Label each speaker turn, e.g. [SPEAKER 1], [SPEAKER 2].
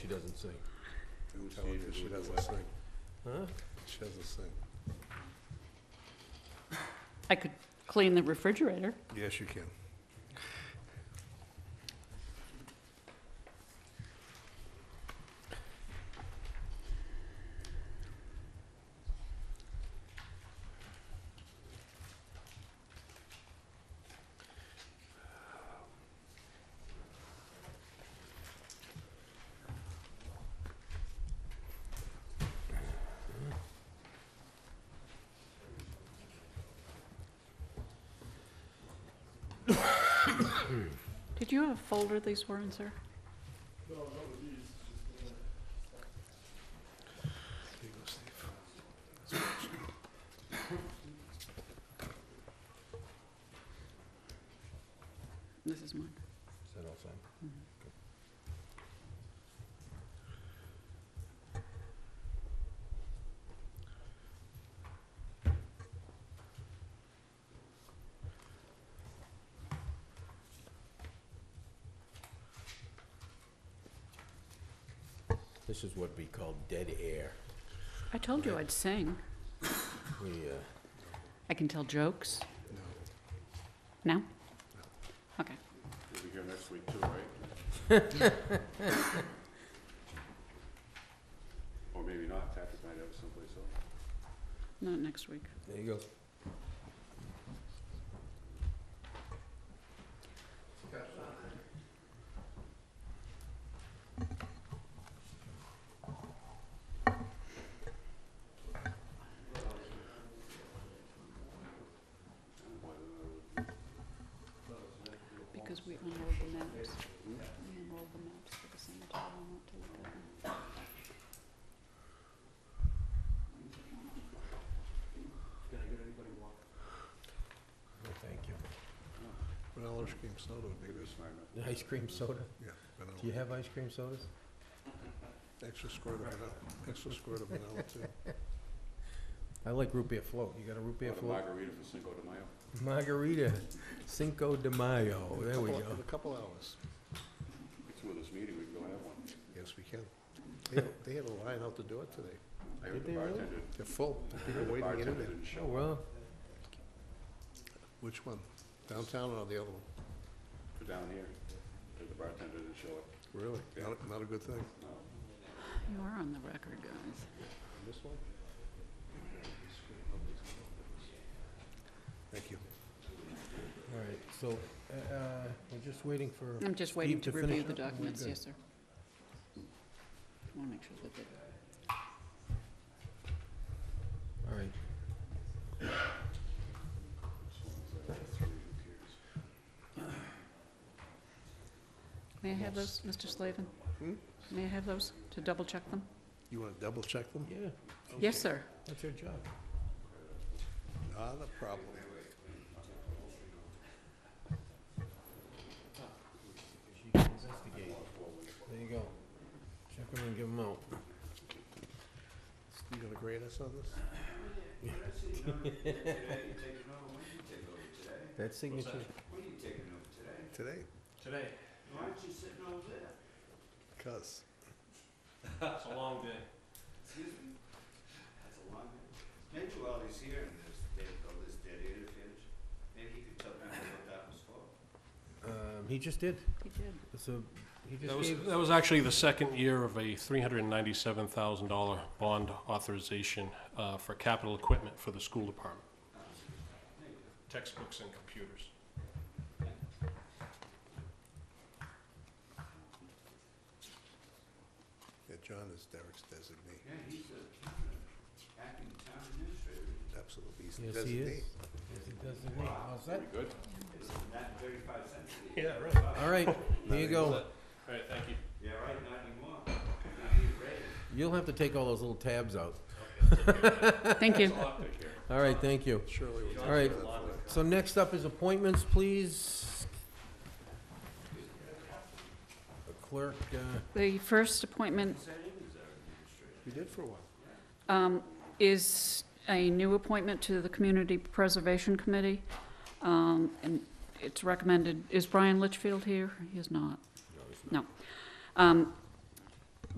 [SPEAKER 1] she doesn't sing.
[SPEAKER 2] Tell her she doesn't sing.
[SPEAKER 1] Huh?
[SPEAKER 2] She doesn't sing.
[SPEAKER 3] I could clean the refrigerator.
[SPEAKER 2] Yes, you can.
[SPEAKER 3] Did you have a folder these were in, sir?
[SPEAKER 2] There you go, Steve.
[SPEAKER 3] This is mine.
[SPEAKER 1] Is that all signed? This is what we call dead air.
[SPEAKER 3] I told you I'd sing.
[SPEAKER 1] We, uh,
[SPEAKER 3] I can tell jokes.
[SPEAKER 2] No.
[SPEAKER 3] No? Okay.
[SPEAKER 4] We'll be here next week too, right? Or maybe not, Patrick might have it someplace else.
[SPEAKER 3] Not next week.
[SPEAKER 1] there you go.
[SPEAKER 3] Because we unrolled the maps. We unrolled the maps for the cemetery. I want to look at them.
[SPEAKER 1] No, Thank you.
[SPEAKER 2] Vanilla ice cream soda would be
[SPEAKER 4] Maybe
[SPEAKER 2] good.
[SPEAKER 4] it's fine. enough.
[SPEAKER 1] Ice cream soda?
[SPEAKER 2] Yeah,
[SPEAKER 1] Do you
[SPEAKER 2] vanilla.
[SPEAKER 1] have ice cream sodas?
[SPEAKER 2] Extra squirt of vanilla, extra squirt of vanilla too.
[SPEAKER 1] I like root beer float. You got a root beer
[SPEAKER 4] Want a
[SPEAKER 1] float?
[SPEAKER 4] margarita for Cinco de Mayo.
[SPEAKER 1] Margarita Cinco de Mayo. There we go.
[SPEAKER 2] In a couple hours.
[SPEAKER 4] Through this meeting, we can go have one.
[SPEAKER 2] Yes, we can. They had- They had a line out the door today.
[SPEAKER 4] I
[SPEAKER 1] Did
[SPEAKER 4] heard the
[SPEAKER 1] they really?
[SPEAKER 4] bartender,
[SPEAKER 2] They're full. People
[SPEAKER 4] the
[SPEAKER 2] waiting to get
[SPEAKER 4] bartender
[SPEAKER 2] in there.
[SPEAKER 4] didn't
[SPEAKER 1] Oh,
[SPEAKER 4] show up
[SPEAKER 1] well,
[SPEAKER 2] Which one? Downtown or the other one?
[SPEAKER 4] for down here. The bartender didn't show up.
[SPEAKER 2] Really? Not, a- not a good thing.
[SPEAKER 3] You are on the record, guys.
[SPEAKER 2] This one? Thank you.
[SPEAKER 1] all right, so, uh, uh, we're just waiting for,
[SPEAKER 3] I'm just waiting to
[SPEAKER 1] Steve, to
[SPEAKER 3] review
[SPEAKER 1] finish
[SPEAKER 3] the
[SPEAKER 1] up, and we're
[SPEAKER 3] documents.
[SPEAKER 1] good.
[SPEAKER 3] Yes, sir. I want to make sure that they
[SPEAKER 1] all right.
[SPEAKER 3] May I have those, Mr. Slavin?
[SPEAKER 2] Hmm?
[SPEAKER 3] May I have those to double check them?
[SPEAKER 2] You want to double check them?
[SPEAKER 1] Yeah,
[SPEAKER 3] Yes, sir.
[SPEAKER 1] that's your job.
[SPEAKER 2] Not a problem.
[SPEAKER 1] She can investigate. There you go. Check them and give them out.
[SPEAKER 2] You gonna grade us on this?
[SPEAKER 1] That signature,
[SPEAKER 2] Today? Today. Why aren't you sitting over there? Cuz.
[SPEAKER 5] That's a long, maybe while he's here and there's, they've got this dead air to finish, maybe he could tell me what that was for.
[SPEAKER 1] um, he just did,
[SPEAKER 3] He did.
[SPEAKER 1] so, he
[SPEAKER 6] That
[SPEAKER 1] just
[SPEAKER 6] was,
[SPEAKER 1] gave,
[SPEAKER 6] that was actually the second year of a $397,000 bond authorization uh, for capital equipment for the school department. Textbooks and computers.
[SPEAKER 2] Yeah, John is Derek's designee.
[SPEAKER 5] Yeah, he's a acting town administrator,
[SPEAKER 2] Absolutely. He's the
[SPEAKER 1] yes, he
[SPEAKER 2] designee.
[SPEAKER 1] is. Yes, he does the name. How's that?
[SPEAKER 4] Good?
[SPEAKER 5] isn't that thirty-five cents a year?
[SPEAKER 6] Yeah, right.
[SPEAKER 1] All right, there you go.
[SPEAKER 6] All right, thank you.
[SPEAKER 5] Yeah, right, not anymore, Now he's ready.
[SPEAKER 1] You'll have to take all those little tabs out.
[SPEAKER 3] Thank you.
[SPEAKER 1] All right, thank you.
[SPEAKER 2] Shirley will
[SPEAKER 1] All right, so next up is appointments, please. The Clerk, uh,
[SPEAKER 3] The first appointment
[SPEAKER 2] We did for a while.
[SPEAKER 3] um, is a new appointment to the Community Preservation Committee. Um, And it's recommended, is Brian Litchfield here? He is not. No. Um,